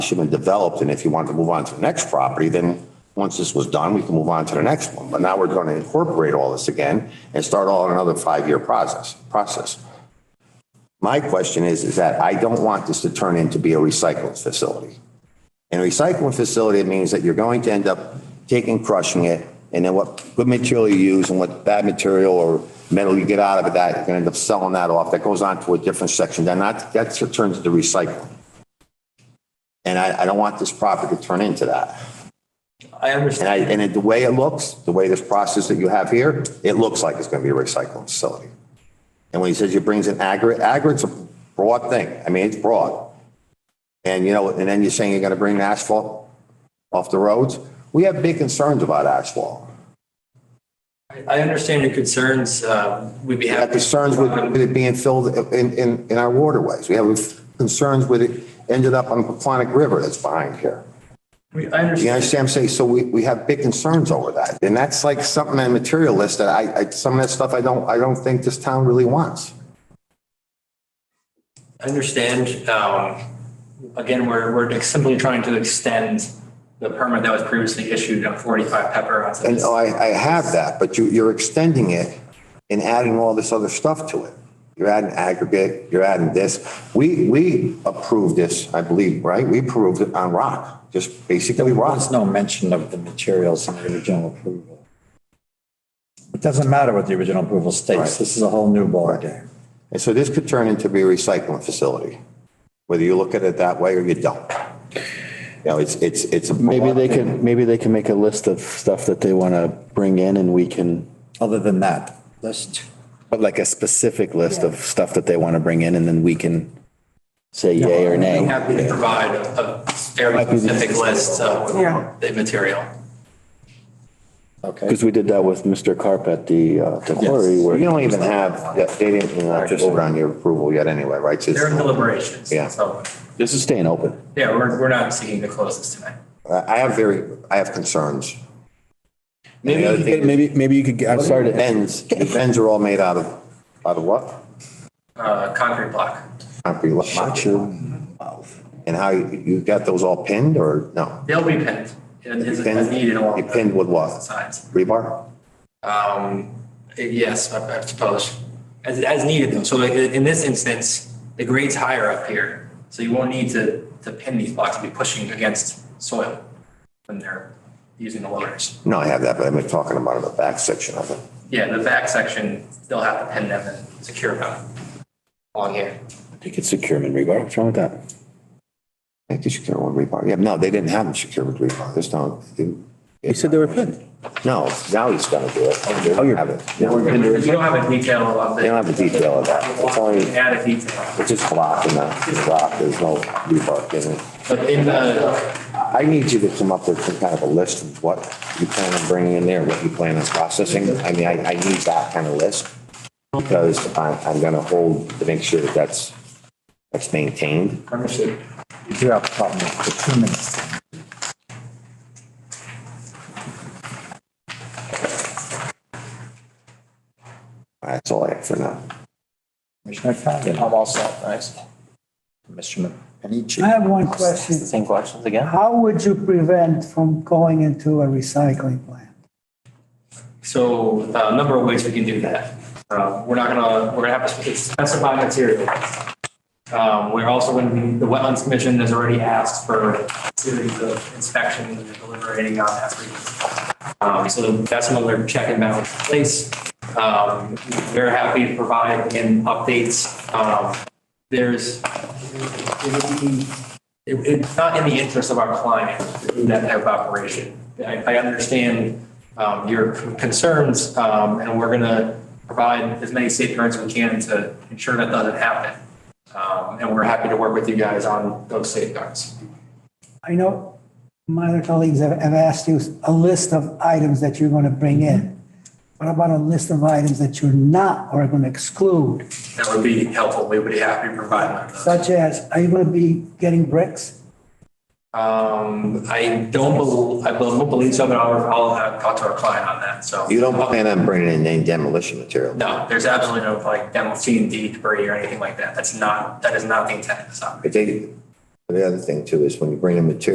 should have been developed, and if you wanted to move on to the next property, then once this was done, we can move on to the next one. But now we're going to incorporate all this again and start all another five-year process, process. My question is, is that I don't want this to turn into be a recycling facility. And a recycling facility means that you're going to end up taking, crushing it, and then what good material you use and what bad material or metal you get out of it, that, you're gonna end up selling that off. That goes on to a different section. Then that, that turns into recycling. And I, I don't want this property to turn into that. I And understand. I, and it- the way it looks, the way this process that you have here, it looks like it's going to be a recycling facility. And when he says he brings in aggregate, aggregate's a broad thing. I mean, it's broad. And you know, and then you're saying you're going to bring asphalt off the roads. We have big concerns about asphalt. I understand your concerns. Uh, We'd be We have happy. concerns with with it being filled in, in, in our waterways. We have concerns with it ended up on the Paquonic River that's behind here. We- I You understand. understand what I'm saying? So we, we have big concerns over that. And that's like something that materialist that I, I, some of that stuff I don't, I don't think this town really wants. I understand. Um, Again, we're, we're simply trying to extend the permit that was previously issued on 45 Pepper. onto And this. oh, I, I have that, but you, you're extending it and adding all this other stuff to it. You're adding aggregate, you're adding this. We, we approved this, I believe, right? We approved it on rock, just basically There rock. was no mention of the materials in the original approval. It doesn't matter what the original approval Right. states. This is a whole new ballgame. And so this could turn into be a recycling facility, whether you look at it that way or you don't. You know, it's, it's, it's. a Maybe they broad thing. can, maybe they can make a list of stuff that they want to bring in and we can, Other than that, list, but like a specific list of stuff that they want to bring in and then we can say yay or We'd be nay. happy to provide a a very specific list of the material. okay? Because we did that with Mr. Carp at the, uh, the quarry where. You don't even have, yeah, they didn't even have to vote on your approval yet anyway, right? So They're in it's- deliberations. Yeah. So, This is staying open. yeah, we're, we're not seeking to close this tonight. I I have very, I have concerns. Maybe, Maybe, maybe you could, I'm sorry The to. bends, the bends are all made out of, out of what? Uh, Concrete block. Concrete. lo- And how, you you got those all pinned or no? They'll be pinned and as as Pinned- needed along You pinned with the what? sides. Rebar? Um, yes, I I suppose, as, as needed though. So like in this instance, the grade's higher up here, so you won't need to, to pin these blocks and be pushing against soil when they're using the loaders. No, I have that, but I've been talking about in the back section of it. Yeah, the back section, they'll have to pin them and secure them along here. I think it's secure in rebar. What's wrong with that? I think you secure with rebar. Yeah, no, they didn't have them secured with rebar. There's no. You said they were pinned. No, now he's gonna do it. Oh, you have it. Now we're gonna do We it. don't have a detail of They don't the, have the detail of that. It's only, add a detail. it's just block and that, it's rock, there's no rebar in it. But in the, I need you to come up with some kind of a list of what you plan on bringing in there, what you plan on processing. I mean, I, I need that kind of list because I'm, I'm gonna hold to make sure that that's, that's maintained. understood. You do have a problem with the two minutes. That's all I have for now. Commissioner Condon. I'm all set, thanks. Commissioner Panici. I have one question. Same questions again? How would you prevent from going into a recycling plant? So uh, a number of ways we can do that. Uh, We're not gonna, we're gonna have to specify material. Um, We're also gonna be, the Wetlands Commission has already asked for a series of inspections and deliberating on that. frequency. Um, So that's another check and balance in place. Um, We're happy to provide in updates. Um, There's, it would be it, it's not in the interest of our client to do that type of operation. I, I understand, um, your concerns, um, and we're gonna provide as many safeguards as we can to ensure that doesn't happen. Um, and we're happy to work with you guys on those safeguards. I know my other colleagues have have asked you a list of items that you're going to bring in. What about a list of items that you're not or are going to exclude? That would be helpful. We would be happy to provide one of those. Such as, are you going to be getting bricks? Um, I don't believe, I don't believe so, but I'll, I'll talk to our client on that, so. You don't plan on bringing in any demolition material? No, there's absolutely no like demo C and D debris or anything like that. That's not, that is not the intent of this If operation. they, The other thing too is when you bring in material